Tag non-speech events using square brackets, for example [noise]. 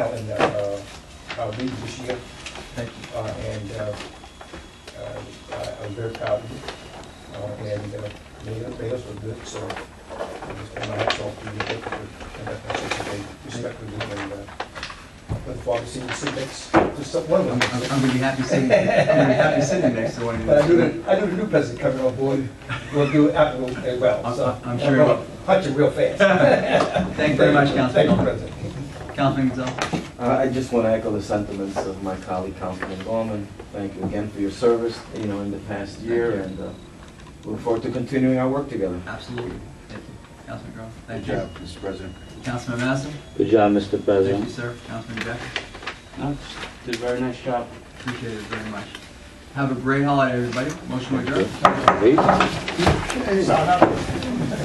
uh, lead this year, Thank you. uh, and, uh, uh, I- I'm very proud of you. Uh, and, uh, many of the players were good, so I just want to hats off to you, thank you for conducting such a day respectfully, and, uh, look forward to seeing you sit next to some, one I'm, of I'm- them. I'm gonna be happy sitting, I'm gonna be happy sitting next to one of you. But I knew the, I knew the new president coming on board will do absolutely well, I'm- so. I'm sure he will. Punch you real fast. [laughs] Thank you very much, Councilman Thank you, Gollman. President. Councilman Gonzalez? Uh, I I just want to echo the sentiments of my colleague, Councilman Gorman. Thank you again for your service, you know, in the past year, and uh, look forward to continuing our work together. Absolutely. Thank you. Councilman Gollman? Good Thank you. job, Mr. President. Councilman Mazza? Good job, Mr. Thank you, President. sir. Councilman Jeff? No, Uh, Did a very nice job. Appreciate it very much. Have a great holiday, everybody. Motion to adjourn. Thank you. Leave. Solid.